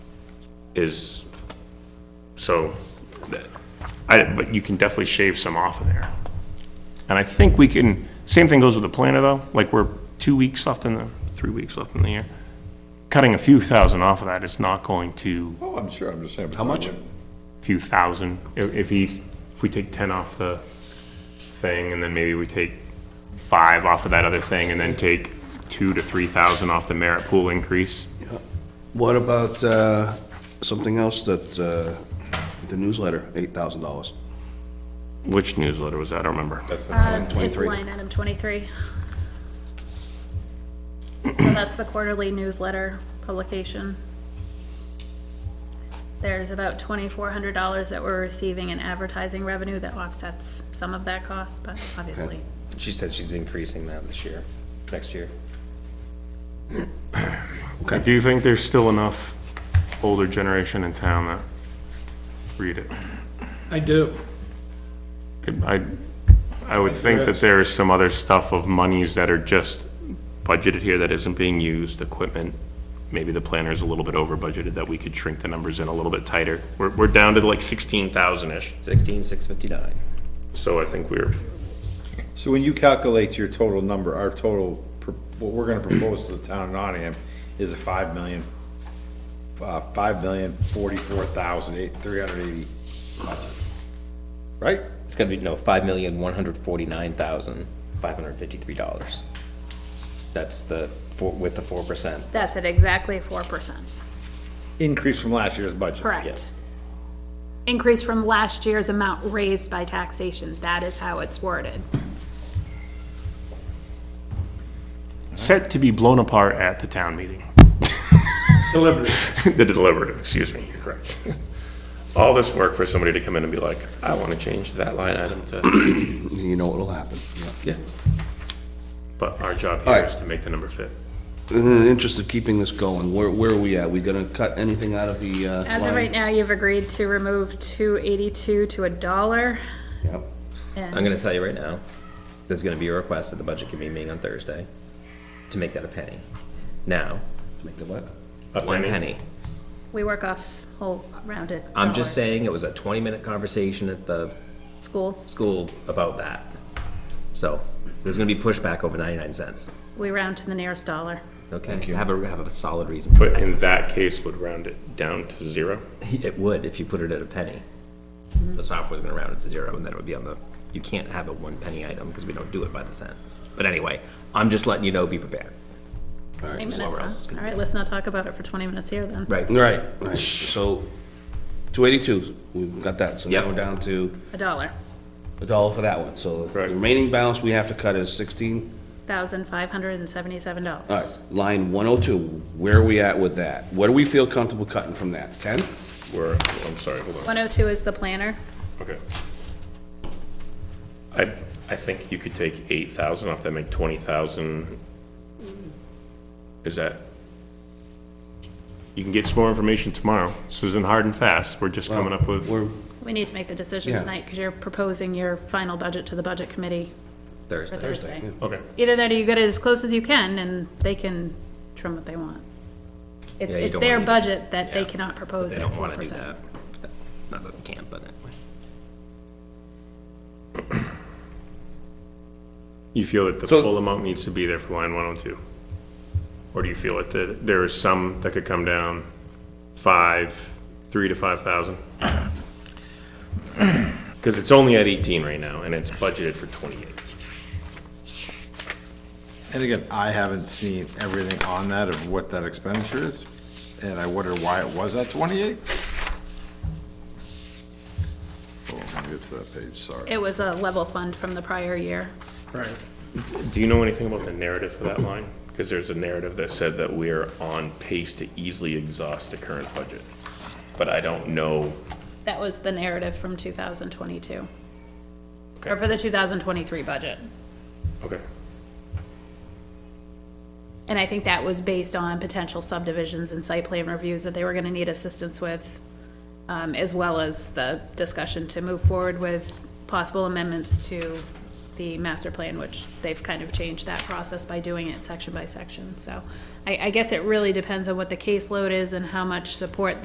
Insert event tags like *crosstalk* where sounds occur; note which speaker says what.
Speaker 1: is, so, that- I, but you can definitely shave some off of there. And I think we can, same thing goes with the planner though, like we're two weeks left in the, three weeks left in the year. Cutting a few thousand off of that is not going to,
Speaker 2: Oh, I'm sure, I'm just saying.
Speaker 3: How much?
Speaker 1: few thousand, if, if he, if we take ten off the thing and then maybe we take five off of that other thing and then take two to three thousand off the merit pool increase.
Speaker 3: What about uh, something else that, uh, the newsletter, $8,000?
Speaker 1: Which newsletter was that? I don't remember.
Speaker 2: That's the
Speaker 3: Item
Speaker 4: Uh, Um, It's
Speaker 3: 23.
Speaker 4: line item 23. So that's the quarterly newsletter publication. There's about $2,400 that we're receiving in advertising revenue that offsets some of that cost, but obviously.
Speaker 5: She said she's increasing that this year, next year.
Speaker 3: Okay,
Speaker 1: Do you think there's still enough older generation in town that read it?
Speaker 6: I do.
Speaker 1: I, I would think that there is some other stuff of monies that are just budgeted here that isn't being used, equipment. Maybe the planner is a little bit over budgeted, that we could shrink the numbers in a little bit tighter. We're, we're down to like sixteen thousand-ish,
Speaker 5: Sixteen, six fifty-nine.
Speaker 1: so I think we're,
Speaker 2: So when you calculate your total number, our total, pro- what we're gonna propose to the town of Nottingham is a five million, uh, five million forty-four thousand eight, three hundred eighty budget. Right?
Speaker 5: It's gonna be, no, five million, one hundred forty-nine thousand, five hundred fifty-three dollars. That's the, four with the four percent.
Speaker 4: That's at exactly 4%.
Speaker 2: Increase from last year's budget.
Speaker 4: Correct.
Speaker 5: Yes.
Speaker 4: Increase from last year's amount raised by taxation. That is how it's worded.
Speaker 1: set to be blown apart at the town meeting. Deliberative. *laughs* The deliberative, excuse me, you're correct. All this work for somebody to come in and be like, I want to change that line item to,
Speaker 3: *clears throat* you know what'll happen. yeah.
Speaker 1: yeah. But our job
Speaker 3: All
Speaker 1: here
Speaker 3: right.
Speaker 1: is to make the number fit.
Speaker 3: In the interest of keeping this going, where, where are we at? We gonna cut anything out of the uh,
Speaker 4: As of right
Speaker 3: line?
Speaker 4: now, you've agreed to remove 282 to a dollar.
Speaker 3: Yep.
Speaker 5: I'm gonna tell you right now, there's gonna be a request at the budget committee meeting on Thursday to make that a penny. Now,
Speaker 3: Make the what?
Speaker 5: one
Speaker 1: penny?
Speaker 5: penny.
Speaker 4: We work off whole rounded.
Speaker 5: I'm just
Speaker 4: dollars.
Speaker 5: saying, it was a twenty-minute conversation at the
Speaker 4: School,
Speaker 5: school about that. So, there's gonna be pushback over ninety-nine cents.
Speaker 4: we round to the nearest dollar.
Speaker 5: Okay, have a, have a solid reason. for
Speaker 1: But in that case, would round it down to zero?
Speaker 5: *laughs* It would if you put it at a penny. The software's gonna round it to zero and then it would be on the, you can't have a one penny item because we don't do it by the cents. But anyway, I'm just letting you know, be prepared.
Speaker 4: Twenty
Speaker 5: where else
Speaker 4: minutes,
Speaker 5: is
Speaker 4: huh?
Speaker 5: gonna
Speaker 4: All right, let's not talk about it for twenty minutes here then.
Speaker 5: Right.
Speaker 3: Right, right, so, two eighty-two, we've got that, so now
Speaker 5: Yep.
Speaker 3: we're down to
Speaker 4: A dollar,
Speaker 3: a dollar for that one, so the
Speaker 1: Correct.
Speaker 3: remaining balance we have to cut is sixteen?
Speaker 4: thousand five hundred and seventy-seven
Speaker 3: All
Speaker 4: dollars.
Speaker 3: right, line one oh two, where are we at with that? What do we feel comfortable cutting from that? Ten?
Speaker 1: We're, I'm sorry, hold on,
Speaker 4: One oh two is the planner.
Speaker 1: okay. I, I think you could take eight thousand off that, make twenty thousand. Is that? You can get some more information tomorrow, this isn't hard and fast, we're just coming up with,
Speaker 3: We're,
Speaker 4: We need to make the decision
Speaker 3: Yeah.
Speaker 4: tonight because you're proposing your final budget to the budget committee for
Speaker 5: Thursday.
Speaker 4: Thursday.
Speaker 1: okay.
Speaker 4: Either that or you get it as close as you can and they can trim what they want. It's,
Speaker 5: Yeah, you
Speaker 4: it's
Speaker 5: don't
Speaker 4: their
Speaker 5: wanna do that.
Speaker 4: budget that they
Speaker 5: Yeah.
Speaker 4: cannot
Speaker 5: But
Speaker 4: propose
Speaker 5: They
Speaker 4: at
Speaker 5: don't
Speaker 4: four
Speaker 5: wanna do
Speaker 4: percent.
Speaker 5: that. Not that they can't, but anyway.
Speaker 1: You feel that the
Speaker 3: So-
Speaker 1: full amount needs to be there for line one oh two? Or do you feel that the- there is some that could come down five, three to five
Speaker 3: *clears throat*
Speaker 1: thousand? Because it's only at eighteen right now, and it's budgeted for twenty-eight.
Speaker 2: And again, I haven't seen everything on that of what that expenditure is, and I wonder why it was at twenty-eight? Oh, maybe it's that page, sorry.
Speaker 4: It was a level fund from the prior year.
Speaker 6: Right.
Speaker 1: Do you know anything about the narrative for that line? Because there's a narrative that said that we're on pace to easily exhaust the current budget. But I don't know,
Speaker 4: That was the narrative from two thousand twenty-two.
Speaker 1: Okay.
Speaker 4: Or for the two thousand twenty-three budget.
Speaker 1: okay,
Speaker 4: And I think that was based on potential subdivisions and site plan reviews that they were gonna need assistance with, um, as well as the discussion to move forward with possible amendments to the master plan, which they've kind of changed that process by doing it section by section, so. I, I guess it really depends on what the caseload is and how much support